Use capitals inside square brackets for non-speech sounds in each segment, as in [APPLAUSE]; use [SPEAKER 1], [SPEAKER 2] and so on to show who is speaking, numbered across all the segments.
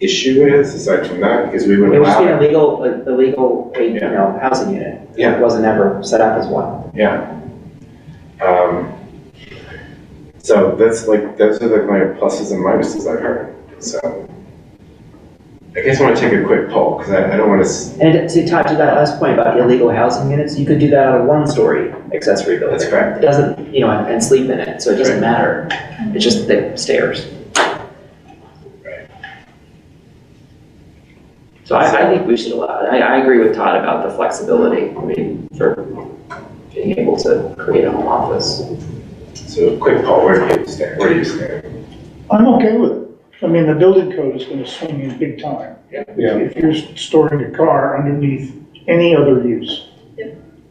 [SPEAKER 1] issue is, aside from that, is we would
[SPEAKER 2] It was just
[SPEAKER 1] allow,
[SPEAKER 2] an illegal, like, illegal, like, you
[SPEAKER 1] Yeah.
[SPEAKER 2] know, housing unit.
[SPEAKER 1] Yeah.
[SPEAKER 2] It wasn't ever set up as one.
[SPEAKER 1] yeah. Um, so that's like, those are like my pluses and minuses I've heard, so. I guess I wanna take a quick poll, cause I, I don't wanna, s-
[SPEAKER 2] And to tie to that last point about illegal housing units, you could do that on a one-story accessory building.
[SPEAKER 1] that's correct.
[SPEAKER 2] It doesn't, you know, and and sleep in it, so it doesn't matter. It's just the stairs. So I, I think we should allow it. I, I agree with Todd about the flexibility, I mean, for being able to create a home office.
[SPEAKER 1] So quick poll, where do you stand, where do you stand?
[SPEAKER 3] I'm okay with it. I mean, the building code is gonna swing in big time.
[SPEAKER 1] Yeah.
[SPEAKER 3] If you're storing a car underneath any other use,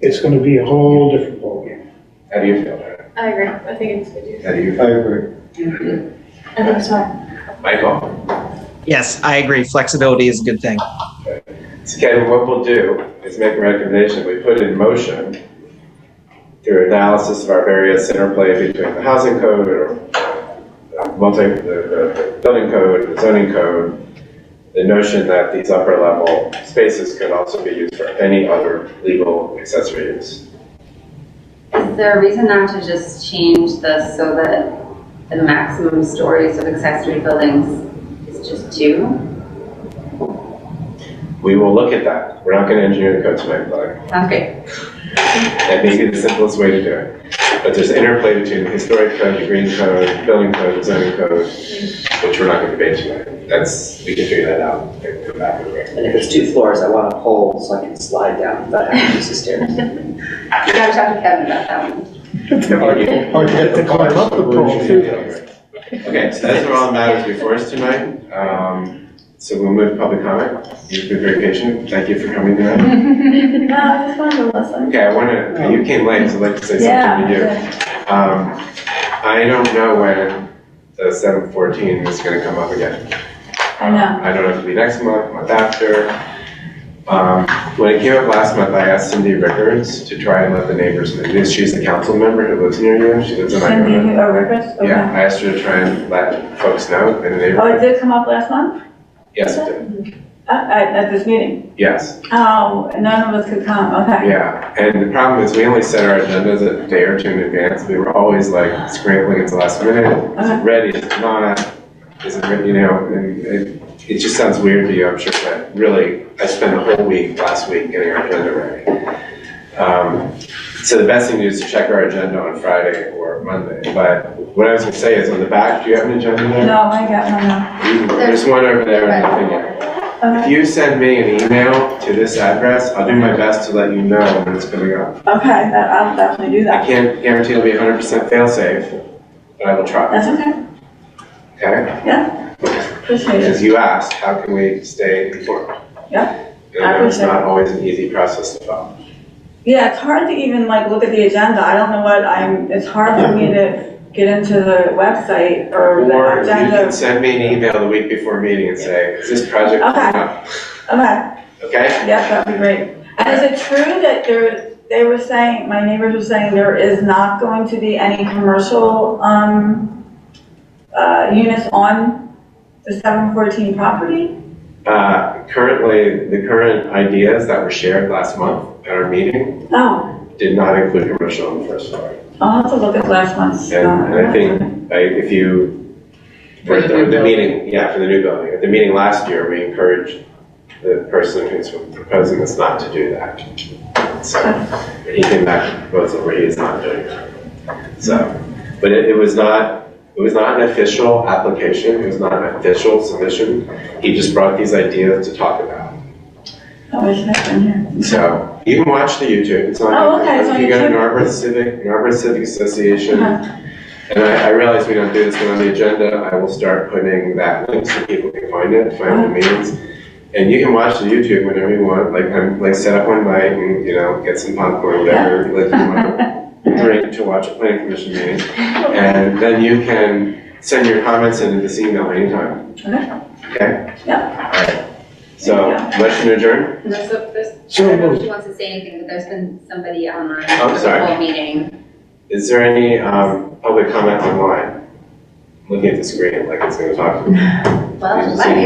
[SPEAKER 3] it's gonna be a whole different ballgame.
[SPEAKER 1] How do you feel about it?
[SPEAKER 4] I agree, I think it's good use.
[SPEAKER 1] How do you,
[SPEAKER 5] I agree.
[SPEAKER 4] I think it's [LAUGHS] fine.
[SPEAKER 1] Michael?
[SPEAKER 6] Yes, I agree. Flexibility is a good thing.
[SPEAKER 1] So Kevin, what we'll do is make a recommendation, we put in motion through analysis of our various interplay between the housing code or uh, multi, the, the building code, the zoning code, the notion that these upper level spaces could also be used for any other legal accessory use.
[SPEAKER 7] Is there a reason not to just change this so that the maximum stories of accessory buildings is just two?
[SPEAKER 1] We will look at that, we're not gonna engineer the code tonight, but
[SPEAKER 7] Sounds great.
[SPEAKER 1] that may be the simplest way to do it. But there's interplay between the historic code, the green code, building code, zoning code, which we're not gonna debate tonight. That's, we can figure that out and come back with it.
[SPEAKER 2] And if there's two floors, I want a pole so I can slide down without having to use the stairs.
[SPEAKER 7] You gotta talk to Kevin about that one.
[SPEAKER 5] Hard to get the car
[SPEAKER 3] Climb up the pole, too.
[SPEAKER 1] Okay, so that's all that matters before us tonight. Um, so we'll move to public comment. You've been very patient. Thank you for coming tonight.
[SPEAKER 4] No, it's fine, Melissa.
[SPEAKER 1] Okay, I wanna, you came late, so I'd like to say something to you.
[SPEAKER 4] Yeah.
[SPEAKER 1] Um, I don't know when the seven fourteen is gonna come up again.
[SPEAKER 4] I know.
[SPEAKER 1] Um, I don't know if it'll be next month, month after. Um, when it came up last month, I asked Cindy Rickards to try and let the neighbors, know. she's a council member who lives near you, she lives in
[SPEAKER 4] Cindy,
[SPEAKER 1] Iona.
[SPEAKER 4] oh, Rivers,
[SPEAKER 1] Yeah,
[SPEAKER 4] okay.
[SPEAKER 1] I asked her to try and let folks know in the
[SPEAKER 4] Oh, it
[SPEAKER 1] neighborhood.
[SPEAKER 4] did come up last month,
[SPEAKER 1] Yes, it did.
[SPEAKER 4] at, at at this meeting?
[SPEAKER 1] yes,
[SPEAKER 4] Oh, none of us could come, okay.
[SPEAKER 1] yeah. And the problem is, we only set our agendas a day or two in advance, we were always like scrambling at the last minute. Is it ready, is it not, is it ready, you know, and it, it just sounds weird to you, I'm sure, but really, I spent the whole week, last week, getting our agenda ready. Um, so the best thing to do is to check our agenda on Friday or Monday, but what I was gonna say is, on the back, do you have an agenda there?
[SPEAKER 4] No, I got, no,
[SPEAKER 1] You- There's one over there and nothing else.
[SPEAKER 4] no.
[SPEAKER 1] If
[SPEAKER 4] Okay.
[SPEAKER 1] you send me an email to this address, I'll do my best to let you know when it's coming up.
[SPEAKER 4] Okay, that, I'll definitely do
[SPEAKER 1] I
[SPEAKER 4] that.
[SPEAKER 1] can't guarantee it'll be hundred percent fail-safe, but I will try,
[SPEAKER 4] That's okay,
[SPEAKER 1] okay?
[SPEAKER 4] appreciate it.
[SPEAKER 1] Because you asked, how can we stay informed?
[SPEAKER 4] Yeah,
[SPEAKER 1] And I know it's
[SPEAKER 4] appreciate
[SPEAKER 1] not always an easy process to follow.
[SPEAKER 4] Yeah, it's hard to even like look at the agenda, I don't know what I'm, it's hard for me to get into the website or
[SPEAKER 1] Or
[SPEAKER 4] the
[SPEAKER 1] you can
[SPEAKER 4] agenda.
[SPEAKER 1] send me an email the week before meeting and say, is this project coming up?
[SPEAKER 4] Okay.
[SPEAKER 1] Okay?
[SPEAKER 4] Yes, that'd be great. And is it true that there, they were saying, my neighbors were saying there is not going to be any commercial, um, uh, units on the seven fourteen property?
[SPEAKER 1] Uh, currently, the current ideas that were shared last month at our meeting
[SPEAKER 4] Oh,
[SPEAKER 1] did not include commercial on the first floor.
[SPEAKER 4] I'll have to look at last month's. uh,
[SPEAKER 1] And I think, I- if you, for
[SPEAKER 2] For the
[SPEAKER 1] the,
[SPEAKER 2] new
[SPEAKER 1] the
[SPEAKER 2] building.
[SPEAKER 1] meeting, yeah, for the new building, at the meeting last year, we encouraged the person who's proposing this not to do that. So, he came back with a proposal where he is not doing that. So, but it, it was not, it was not an official application, it was not an official submission, he just brought these ideas to talk about.
[SPEAKER 4] I wish I'd been
[SPEAKER 1] [LAUGHS]
[SPEAKER 4] here.
[SPEAKER 1] So, you can watch the YouTube, it's on
[SPEAKER 4] Oh,
[SPEAKER 1] YouTube.
[SPEAKER 4] okay, it's on
[SPEAKER 1] You go
[SPEAKER 4] YouTube. Uh-huh.
[SPEAKER 1] to Narberth Civic, Narberth Civic Association,
[SPEAKER 4] Okay.
[SPEAKER 1] and I, I realize we don't do this, but on the agenda, I will start putting that link so people can find it, find the
[SPEAKER 4] Oh.
[SPEAKER 1] meetings. And you can watch the YouTube whenever you want, like, I'm, like, set up one night and, you know, get some popcorn, whatever, like, you
[SPEAKER 4] [LAUGHS]
[SPEAKER 1] want to drink to watch a planning commission meeting. And then you can send your comments into this email anytime.
[SPEAKER 4] Okay.
[SPEAKER 1] Okay?
[SPEAKER 4] Yeah.
[SPEAKER 1] Alright, so, motion to adjourn?
[SPEAKER 7] There's, a- there's, I
[SPEAKER 5] So
[SPEAKER 7] don't know if
[SPEAKER 5] moved.
[SPEAKER 7] she wants to say anything, but there's been somebody online
[SPEAKER 1] I'm
[SPEAKER 7] for
[SPEAKER 1] sorry.
[SPEAKER 7] the whole meeting.
[SPEAKER 1] Is there any, um, public comment online? Looking at the screen, like it's gonna talk to me.
[SPEAKER 7] Well,
[SPEAKER 1] Yes,
[SPEAKER 7] might be.